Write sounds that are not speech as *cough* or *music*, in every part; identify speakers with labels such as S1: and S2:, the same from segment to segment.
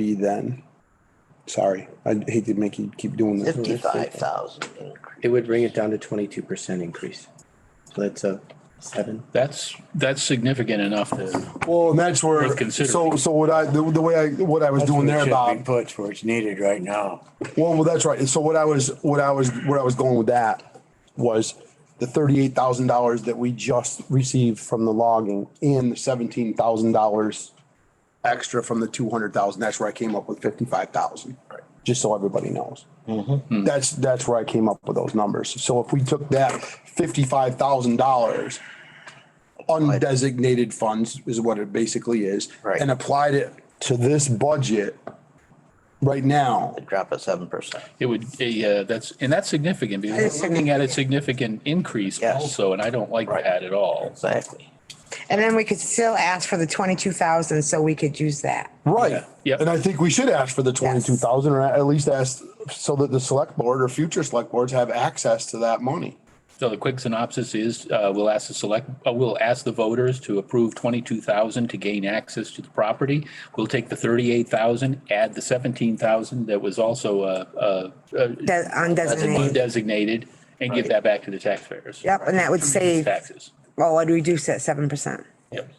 S1: be then. Sorry, I hate to make you keep doing this.
S2: Fifty-five thousand increase.
S3: It would bring it down to twenty-two percent increase. So that's a seven.
S4: That's, that's significant enough to,
S1: Well, and that's where,
S4: Worth considering.
S1: so, so what I, the, the way I, what I was doing there, Bob.
S5: Puts where it's needed right now.
S1: Well, well, that's right. So what I was, what I was, where I was going with that was the thirty-eight thousand dollars that we just received from the logging and the seventeen thousand dollars extra from the two hundred thousand. That's where I came up with fifty-five thousand. Just so everybody knows. That's, that's where I came up with those numbers. So if we took that fifty-five thousand dollars undesignated funds is what it basically is.
S2: Right.
S1: And applied it to this budget right now.
S2: It'd drop of seven percent.
S4: it would, yeah, that's, and that's significant because we're looking at a significant increase
S2: Yes.
S4: also, and I don't like
S2: Right.
S4: that at all.
S2: Exactly.
S6: And then we could still ask for the twenty-two thousand, so we could use that.
S1: Right.
S4: Yeah.
S1: And I think we should ask for the twenty-two thousand or at least ask so that the select board or future select boards have access to that money.
S4: So the quick synopsis is, uh, we'll ask the select, uh, we'll ask the voters to approve twenty-two thousand to gain access to the property. We'll take the thirty-eight thousand, add the seventeen thousand that was also, uh, uh, uh,
S6: That undesignated.
S4: designated, and give that back to the taxpayers.
S6: Yep, and that would save,
S4: Taxes.
S6: well, I'd reduce that seven percent.
S4: Yep.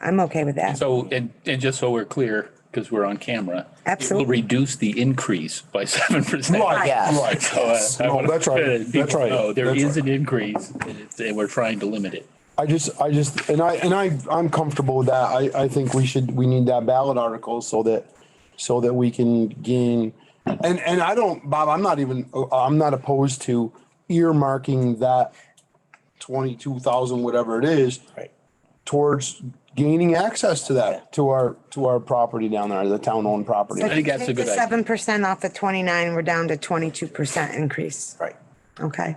S6: I'm okay with that.
S4: So, and, and just so we're clear, because we're on camera.
S6: Absolutely.
S4: It will reduce the increase by *laughs* seven percent.
S2: Yes.
S1: Right.
S4: *laughs* So uh, I
S1: No,
S4: wanna-
S1: Oh, that's
S4: *laughs*
S1: right.
S4: people
S1: That's right.
S4: know there
S1: That's
S4: is
S1: right.
S4: an increase, and it's- and we're trying to limit it.
S1: I just, I just, and I, and I, I'm comfortable with that. I, I think we should, we need that ballot article so that, so that we can gain. And, and I don't, Bob, I'm not even, uh, I'm not opposed to earmarking that twenty-two thousand, whatever it is.
S2: Right.
S1: Towards gaining access to that, to our, to our property down there, the town-owned property.
S4: think that's a good idea.
S6: Seven percent off the twenty-nine, we're down to twenty-two percent increase.
S2: Right.
S6: Okay,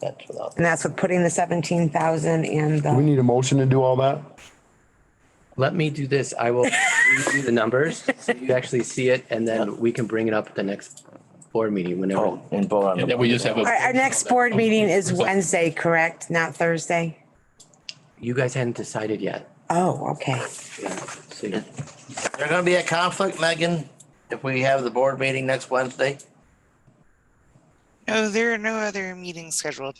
S2: That's without.
S6: and that's with putting the seventeen thousand and
S1: We
S6: the,
S1: need a motion to do all that?
S3: Let me do this. I will read you the numbers, so you actually see it, and then we can bring it up at the next board meeting whenever.
S2: Oh, and vote on
S4: And
S2: the.
S4: then we just have a.
S6: our, our next board meeting is Wednesday, correct? Not Thursday?
S3: You guys hadn't decided yet.
S6: Oh, okay.
S3: So you-
S2: There gonna be a conflict, Megan, if we have the board meeting next Wednesday?
S7: No, Oh, there are no other meetings scheduled.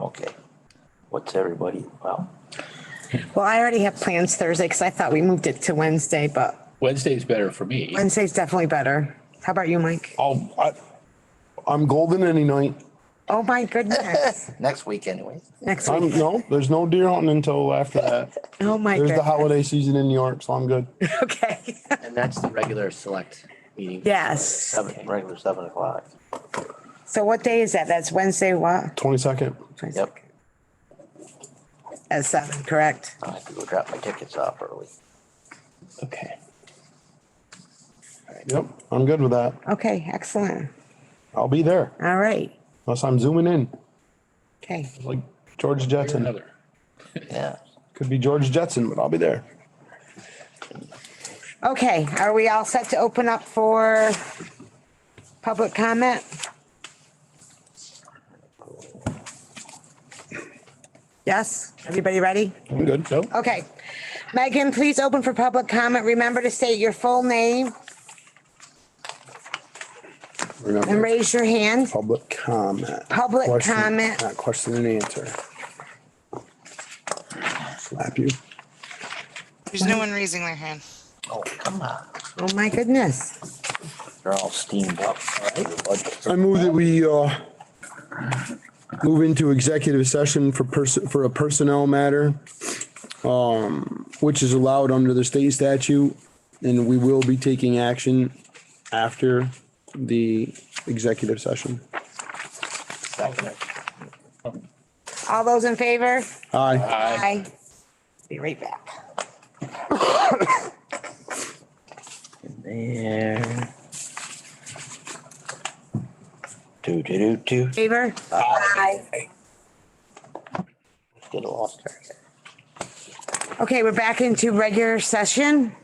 S2: Okay. What's everybody, well,
S6: Well, I already have plans Thursday, because I thought we moved it to Wednesday, but
S4: Wednesday's better for me.
S6: Wednesday's definitely better. How about you, Mike?
S1: I'll, I, I'm golden any night.
S6: Oh, my goodnness.
S2: *laughs* next week anyway.
S6: Next
S1: I'm,
S6: week.
S1: no, there's no deer hunting until after that.
S6: Oh, my
S1: There's the
S6: goodness.
S1: holiday season in New York, so I'm good.
S6: *laughs* Okay.
S2: *laughs*
S3: And that's the regular select meeting.
S6: Yes.
S2: Seven, regular seven o'clock.
S6: So what day is that? That's Wednesday, what?
S1: Twenty-second.
S2: Yep.
S6: At seven, correct?
S2: I have to go drop my tickets off early.
S3: Okay.
S1: Yep, I'm good with that.
S6: Okay, excellent.
S1: I'll be there
S6: All right.
S1: unless I'm zooming in
S6: Okay.
S1: like George Jetson.
S4: Another.
S2: Yeah.
S1: Could be George Jetson, but I'll be there.
S6: Okay, are we all set to open up for public comment? Yes, everybody ready?
S1: I'm good. Nope.
S6: Okay. Megan, please open for public comment. Remember to state your full name
S1: We're
S6: and
S1: not
S6: raise your hand.
S1: public comment.
S6: Public
S1: Question-
S6: comment.
S1: not Question and answer. Slap you.
S7: There's no one raising their hand.
S2: Oh, come on.
S6: Oh, my goodness.
S2: They're all steamed up.
S1: I move that we, uh, move into executive session for person, for a personnel matter, um, which is allowed under the state statute. And we will be taking action after the executive session.
S2: Second.
S6: All those in favor?
S1: Aye.
S4: Aye.
S6: Aye. Be right back.
S2: There. Do, do, do, do.
S6: Favor? Aye.
S2: Get a lost there.
S6: Okay, we're back into regular session.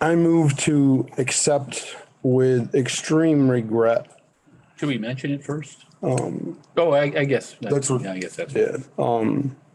S1: I move to accept with extreme regret.
S4: Should we mention it first? Oh, I, I guess,
S1: That's what- Um,
S4: yeah, I guess that's.
S1: Yeah. Um,